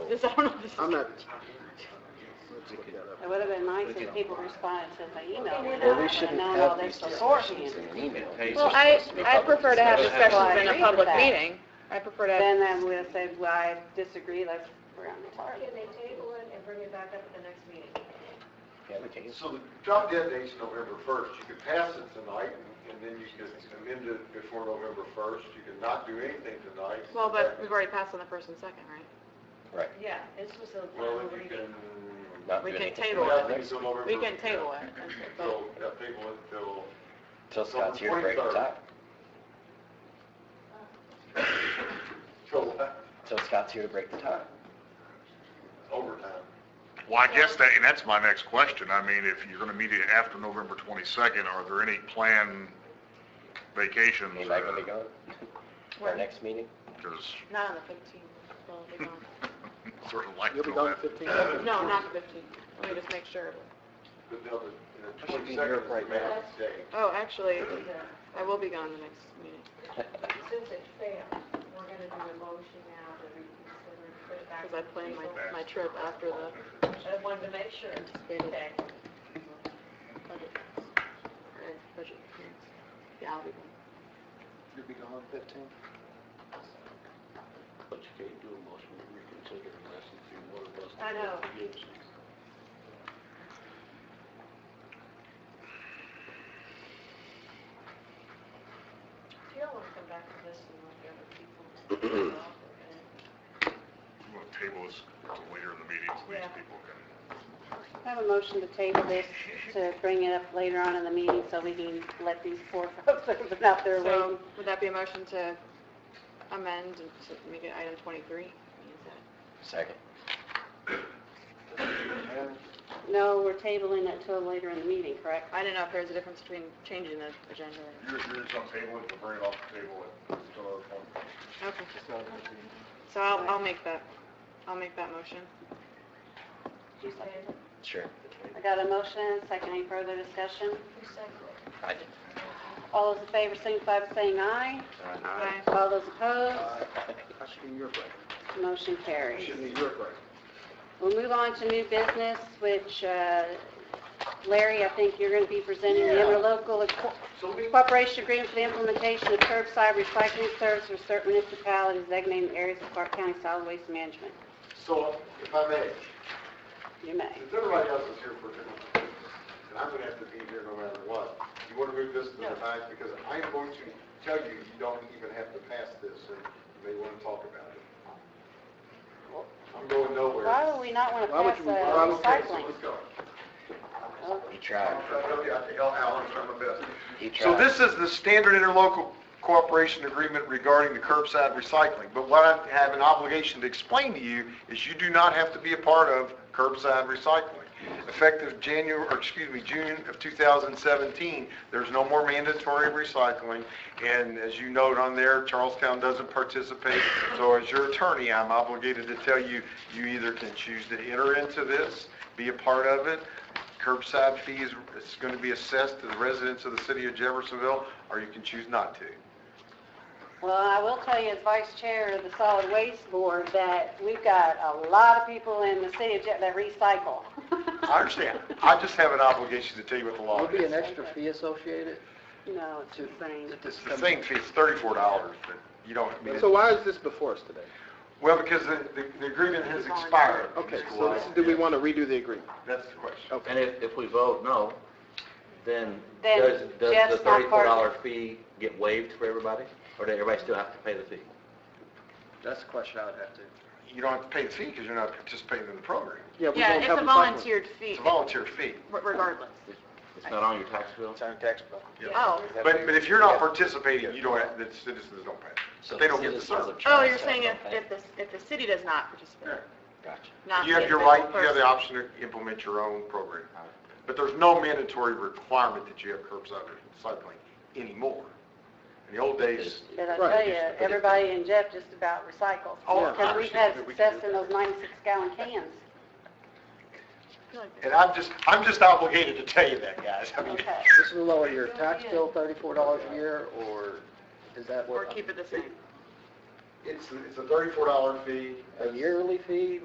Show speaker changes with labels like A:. A: this, I don't know if this is.
B: I'm not. Let's look that up.
A: It would have been nice if people responded to my email, you know,
B: Well,
A: I
B: we
A: would have
B: shouldn't
A: known all
B: have these
A: this before.
B: discussions in an email.
C: Well, I, I prefer to have
A: Well, I
C: discussions
A: agree
C: in a
A: with
C: public
A: that.
C: meeting. I prefer to, have-
A: Then I would have said, well, I disagree, let's, we're on the target.
D: Can they table it and bring it back up at the next meeting?
B: Yeah, we can.
E: So the drop dead date's November first, you could pass it tonight, and then you could amend it before November first, you could not do anything tonight.
C: well, but we've already passed on the first and second, right?
B: Right.
D: Yeah, this was a
E: Well,
D: final
E: then you
D: reading.
E: can.
B: Not
C: We
B: do
C: can
B: anything
C: table
B: about
C: it.
B: next-
C: We can table it.
E: So, yeah, table it till,
B: Till Scott's here to break the tie.
E: till
B: Till Scott's here to break the tie.
E: overtime.
F: Well, I guess that, and that's my next question. I mean, if you're gonna meet it after November 22nd, are there any planned vacations? Uh,
B: Ain't that gonna be gone? Our
C: Where?
B: next meeting?
F: Because
C: Not on the fifteenth, well, we don't.
F: sort of like
B: You'll be
F: to know
B: gone
F: that. Uh,
B: 15
C: No, not the fifteenth. Let me just make sure.
E: But now the, the
B: I should be in
E: twenty-second
B: Europe
E: is
B: right
E: the
B: now.
E: man's day.
C: Oh, actually, I will be gone the next meeting.
D: Since it failed, we're gonna do a motion now to reconsider and put it back.
C: Because I planned my, my trip after the
D: I wanted to make sure.
C: anticipated
D: Okay.
C: budget. or budget hearings. Yeah, I'll be gone.
B: You'll be gone fifteen? But you can't do a motion to reconsider unless it's in one of us.
D: I know. Do y'all wanna come back to this and let the other people?
F: You want to table this till later in the meeting, so these
D: Yeah.
F: people can,
A: I have a motion to table this, to bring it up later on in the meeting, so we can let these poor folks that have been out there waiting.
C: So would that be a motion to amend and to make it item twenty-three?
B: Second.
A: No, we're tabling it till later in the meeting, correct?
C: I didn't know if there's a difference between changing the agenda
F: you're, you're just on table it, we'll bring it off the table at, till our point.
C: or, okay. So I'll, I'll make that, I'll make that motion.
D: Who seconded?
B: Sure.
A: I got a motion, and a second, any further discussion?
D: Who seconded?
B: I did.
A: All those in favor signify by saying aye.
C: Aye.
A: All those opposed,
B: I should be in Europe
A: motion carries.
B: be in Europe right.
A: We'll move on to new business, which uh, Larry, I think you're going to be presenting the interlocal co-
E: So we,
A: cooperation agreement for the implementation of curbside recycling service for certain municipalities designated in areas of Clark County solid waste management.
E: so if I may,
A: You may.
E: Since everybody else is here for different business, and I'm gonna have to be here no matter what, you wanna move this to the ninth, because I am going to tell you, you don't even have to pass this, and you may wanna talk about it. I'm going nowhere.
A: Why would we not want to
B: Why would
A: pass
B: you-
A: uh,
E: Well, Okay, so
A: recycling?
E: let's go.
A: Oh,
B: He
E: I'm
B: tried.
E: trying to help you out, Al, Al, I'm trying my best.
B: He
E: So
B: tried.
E: this is the standard interlocal cooperation agreement regarding the curbside recycling. But what I have an obligation to explain to you is you do not have to be a part of curbside recycling. Effective January, or excuse me, June of 2017, there's no more mandatory recycling. And as you note on there, Charlestown doesn't participate. So as your attorney, I'm obligated to tell you, you either can choose to enter into this, be a part of it, curbside fees is going to be assessed to the residents of the city of Jeffersonville, or you can choose not to.
A: Well, I will tell you as vice chair of the solid waste board that we've got a lot of people in the city of Jet that recycle.
E: I understand. I just have an obligation to tell you what the law
G: Will be an
E: is.
G: extra fee associated?
A: No, it's insane.
E: It's the same fee, it's thirty-four dollars, but you don't, I mean,
G: So
E: it-
G: why is this before us today?
E: well, because the, the- the agreement has expired.
G: Okay, so this- do we want to redo the agreement?
E: That's the question.
G: Okay.
H: And if, if we vote no, then
A: Then
H: does, does
A: Jeff's
H: the
A: not
H: thirty-four
A: part of
H: dollar fee get waived for everybody? Or does everybody still have to pay the fee?
G: That's the question I would have to.
E: You don't have to pay the fee because you're not participating in the program.
G: Yeah, we
C: Yeah,
G: won't have
C: it's a
G: recycling.
C: volunteered fee
E: It's a volunteer fee.
C: re- regardless.
H: It's not on your tax bill?
B: It's on tax bill.
C: Oh,
E: But, but if you're not participating, you don't, have- the citizens don't pay.
H: So
E: They don't get the
H: citizens of
E: service.
C: oh, you're saying if,
H: Okay.
C: if the, if the city does not participate,
B: Gotcha.
C: not
E: You have
C: the
E: your right,
C: individual
E: you have the
C: person.
E: option to implement your own program. But there's no mandatory requirement that you have curbside recycling anymore. In the old days,
A: Did I tell
G: Right.
A: you, everybody in Jeff just about recycles.
E: Oh, I
A: Because we've
E: understand
A: had
E: that we can
A: success
E: do
A: in those 96 gallon cans.
C: I feel like
E: and I'm just, I'm just obligated to tell you that, guys. I mean,
A: Okay.
G: This will lower your tax bill thirty-four dollars a year, or is that
C: Or
G: what,
C: keep it the same.
E: it's, it's a thirty-four dollar fee.
G: a yearly fee?